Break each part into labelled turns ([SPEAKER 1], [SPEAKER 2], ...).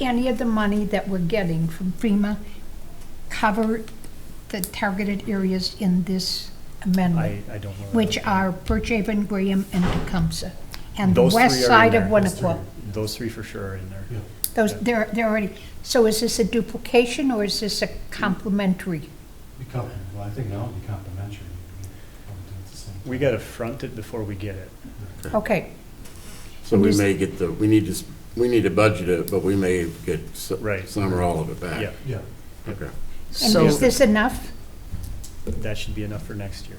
[SPEAKER 1] any of the money that we're getting from FEMA cover the targeted areas in this amendment?
[SPEAKER 2] I, I don't know. that.
[SPEAKER 1] Which are Birch Haven, Graham, and Tecumseh, and the
[SPEAKER 2] Those three
[SPEAKER 1] west
[SPEAKER 2] are in
[SPEAKER 1] side of
[SPEAKER 2] there. Those
[SPEAKER 1] Winnequa.
[SPEAKER 2] three- Those three for sure are in there.
[SPEAKER 1] Those, they're, they're already, so is this a duplication or is this a complementary?
[SPEAKER 3] Be complementary, well, I think that would be complimentary.
[SPEAKER 2] We gotta front it before we get it.
[SPEAKER 1] Okay,
[SPEAKER 4] So we may get the, we need to, s- we need to budget it, but we may get s-
[SPEAKER 2] Right.
[SPEAKER 4] some or all of it back.
[SPEAKER 2] Yeah,
[SPEAKER 3] Yeah,
[SPEAKER 4] Okay.
[SPEAKER 1] and
[SPEAKER 5] So,
[SPEAKER 1] is this enough?
[SPEAKER 2] that should be enough for next year.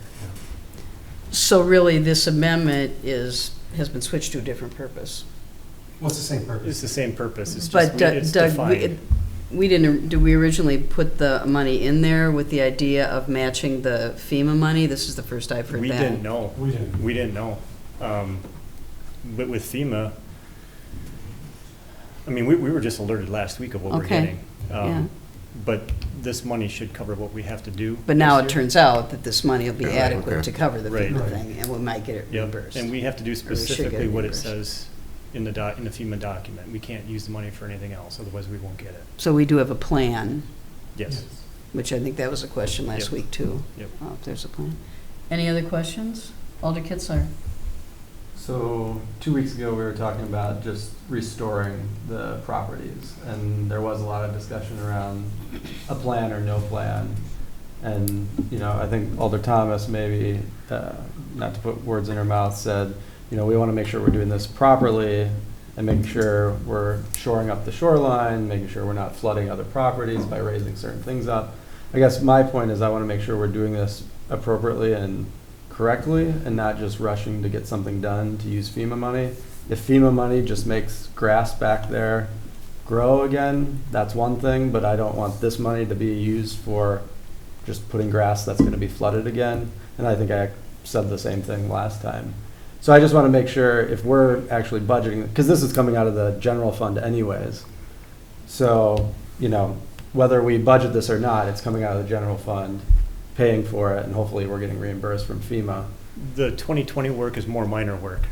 [SPEAKER 5] so really, this amendment is, has been switched to a different purpose.
[SPEAKER 3] well, it's the same
[SPEAKER 2] It's
[SPEAKER 3] purpose.
[SPEAKER 2] the same purpose, it's just,
[SPEAKER 5] But
[SPEAKER 2] we- it's
[SPEAKER 5] Doug- Doug, we-
[SPEAKER 2] defined.
[SPEAKER 5] we didn't, did we originally put the money in there with the idea of matching the FEMA money? This is the first I've heard that.
[SPEAKER 2] We didn't know,
[SPEAKER 3] We didn't,
[SPEAKER 2] we didn't know. Um, But with FEMA, I mean, we, we were just alerted last week of what we're
[SPEAKER 5] Okay,
[SPEAKER 2] getting. Um,
[SPEAKER 5] yeah.
[SPEAKER 2] But this money should cover what we have to do.
[SPEAKER 5] But now it
[SPEAKER 2] this year.
[SPEAKER 5] turns out that this money will be
[SPEAKER 4] Yeah,
[SPEAKER 5] adequate
[SPEAKER 4] okay.
[SPEAKER 5] to cover the
[SPEAKER 2] Right.
[SPEAKER 5] FEMA thing, and we might get it
[SPEAKER 2] Yep,
[SPEAKER 5] reimbursed.
[SPEAKER 2] and we have to do
[SPEAKER 5] should get
[SPEAKER 2] specifically what it
[SPEAKER 5] reimbursed.
[SPEAKER 2] says in the doc, in the FEMA document. We can't use the money for anything else, otherwise we won't get it.
[SPEAKER 5] So we do have a plan,
[SPEAKER 2] Yes.
[SPEAKER 5] which I think that was a question last
[SPEAKER 2] Yep.
[SPEAKER 5] week, too.
[SPEAKER 2] Yep.
[SPEAKER 5] Uh, If there's a plan. Any other questions? Alder Kitzler?
[SPEAKER 6] So, two weeks ago, we were talking about just restoring the properties, and there was a lot of discussion around a plan or no plan. And, you know, I think Alder Thomas maybe, uh, not to put words in her mouth, said, you know, we want to make sure we're doing this properly and making sure we're shoring up the shoreline, making sure we're not flooding other properties by raising certain things up. I guess my point is I want to make sure we're doing this appropriately and correctly and not just rushing to get something done to use FEMA money. If FEMA money just makes grass back there grow again, that's one thing, but I don't want this money to be used for just putting grass that's going to be flooded again. And I think I said the same thing last time. So I just want to make sure if we're actually budgeting, because this is coming out of the general fund anyways. So, you know, whether we budget this or not, it's coming out of the general fund, paying for it, and hopefully we're getting reimbursed from FEMA.
[SPEAKER 2] The 2020 work is more minor work.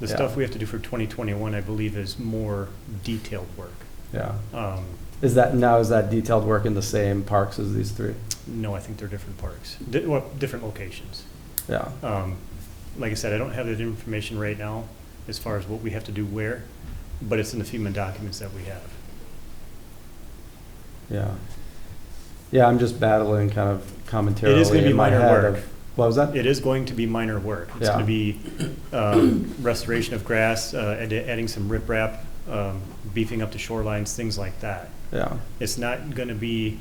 [SPEAKER 2] The
[SPEAKER 6] Yeah.
[SPEAKER 2] stuff we have to do for 2021, I believe, is more detailed work.
[SPEAKER 6] Yeah.
[SPEAKER 2] Um,
[SPEAKER 6] Is that, now is that detailed work in the same parks as these three?
[SPEAKER 2] No, I think they're different parks, di- well, different locations.
[SPEAKER 6] Yeah.
[SPEAKER 2] Um, Like I said, I don't have that information right now as far as what we have to do where, but it's in the FEMA documents that we have.
[SPEAKER 6] Yeah. Yeah, I'm just battling kind of
[SPEAKER 2] It is going
[SPEAKER 6] commentarily
[SPEAKER 2] to be
[SPEAKER 6] in my
[SPEAKER 2] minor
[SPEAKER 6] head
[SPEAKER 2] work.
[SPEAKER 6] of, what was that?
[SPEAKER 2] It is going to be minor work. It's going
[SPEAKER 6] Yeah.
[SPEAKER 2] to be um, restoration of grass, uh, add- adding some riprap, um, beefing up the shorelines, things like that.
[SPEAKER 6] Yeah,
[SPEAKER 2] It's not going to be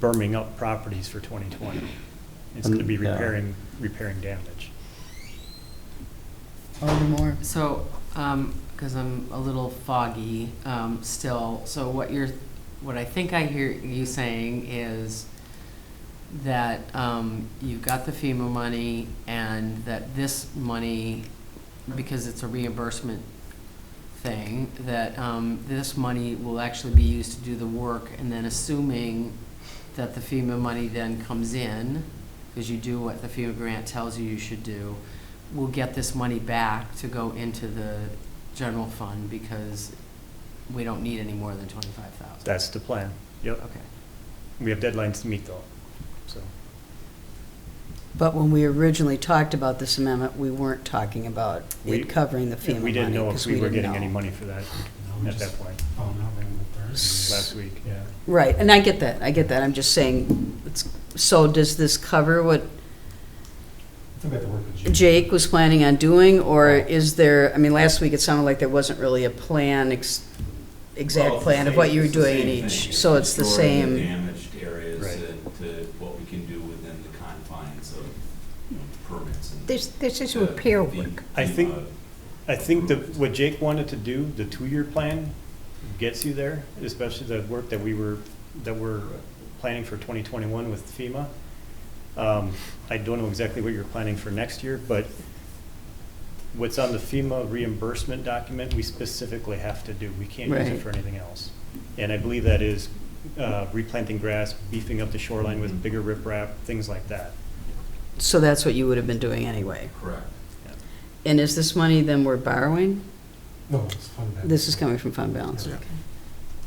[SPEAKER 2] burming up properties for 2020. It's going to be
[SPEAKER 6] Mm, yeah.
[SPEAKER 2] repairing, repairing damage.
[SPEAKER 5] Alder Moore?
[SPEAKER 7] So, because I'm a little foggy um, still, so what you're, what I think I hear you saying is that um, you've got the FEMA money and that this money, because it's a reimbursement thing, that um, this money will actually be used to do the work, and then assuming that the FEMA money then comes in, because you do what the FEMA grant tells you you should do, we'll get this money back to go into the general fund because we don't need any more than twenty-five thousand.
[SPEAKER 2] That's the plan. Yep.
[SPEAKER 7] Okay.
[SPEAKER 2] We have deadlines to meet though, so.
[SPEAKER 5] But when we originally talked about this amendment, we weren't talking about
[SPEAKER 2] We-
[SPEAKER 5] it covering the FEMA money.
[SPEAKER 2] We didn't know if
[SPEAKER 5] 'cause
[SPEAKER 2] we were
[SPEAKER 5] didn't
[SPEAKER 2] getting any
[SPEAKER 5] know.
[SPEAKER 2] money for that
[SPEAKER 3] No, we
[SPEAKER 2] at that
[SPEAKER 3] just
[SPEAKER 2] point,
[SPEAKER 3] found out maybe the third.
[SPEAKER 2] last week, yeah.
[SPEAKER 5] Right, and I get that, I get that, I'm just saying, it's- so does this cover what
[SPEAKER 3] I think we have to work with Jake.
[SPEAKER 5] Jake was planning on doing, or is there, I mean, last week it sounded like there wasn't really a plan, ex- exact
[SPEAKER 8] Well, it's the
[SPEAKER 5] plan of what
[SPEAKER 8] same-
[SPEAKER 5] you were
[SPEAKER 8] it's the
[SPEAKER 5] doing in
[SPEAKER 8] same thing.
[SPEAKER 5] each, so it's the
[SPEAKER 8] Restoring
[SPEAKER 5] same.
[SPEAKER 8] Damaged areas
[SPEAKER 2] Right.
[SPEAKER 8] and to what we can do within the confines of, you know, permits and.
[SPEAKER 1] This, this is
[SPEAKER 8] the-
[SPEAKER 1] repair
[SPEAKER 8] the-
[SPEAKER 1] work.
[SPEAKER 2] I think-
[SPEAKER 8] the,
[SPEAKER 2] I think the, what Jake wanted to do, the two-year plan, gets you there, especially the work that we were, that we're planning for 2021 with FEMA. Um, I don't know exactly what you're planning for next year, but what's on the FEMA reimbursement document, we specifically have to do. We can't use it
[SPEAKER 5] Right.
[SPEAKER 2] for anything else. And I believe that is uh, replanting grass, beefing up the shoreline with bigger riprap, things like that.
[SPEAKER 5] So that's what you would have been doing anyway.
[SPEAKER 8] uh, Correct.
[SPEAKER 5] And is this money then we're borrowing?
[SPEAKER 3] No, it's fun.
[SPEAKER 5] This is coming from fund balance, okay.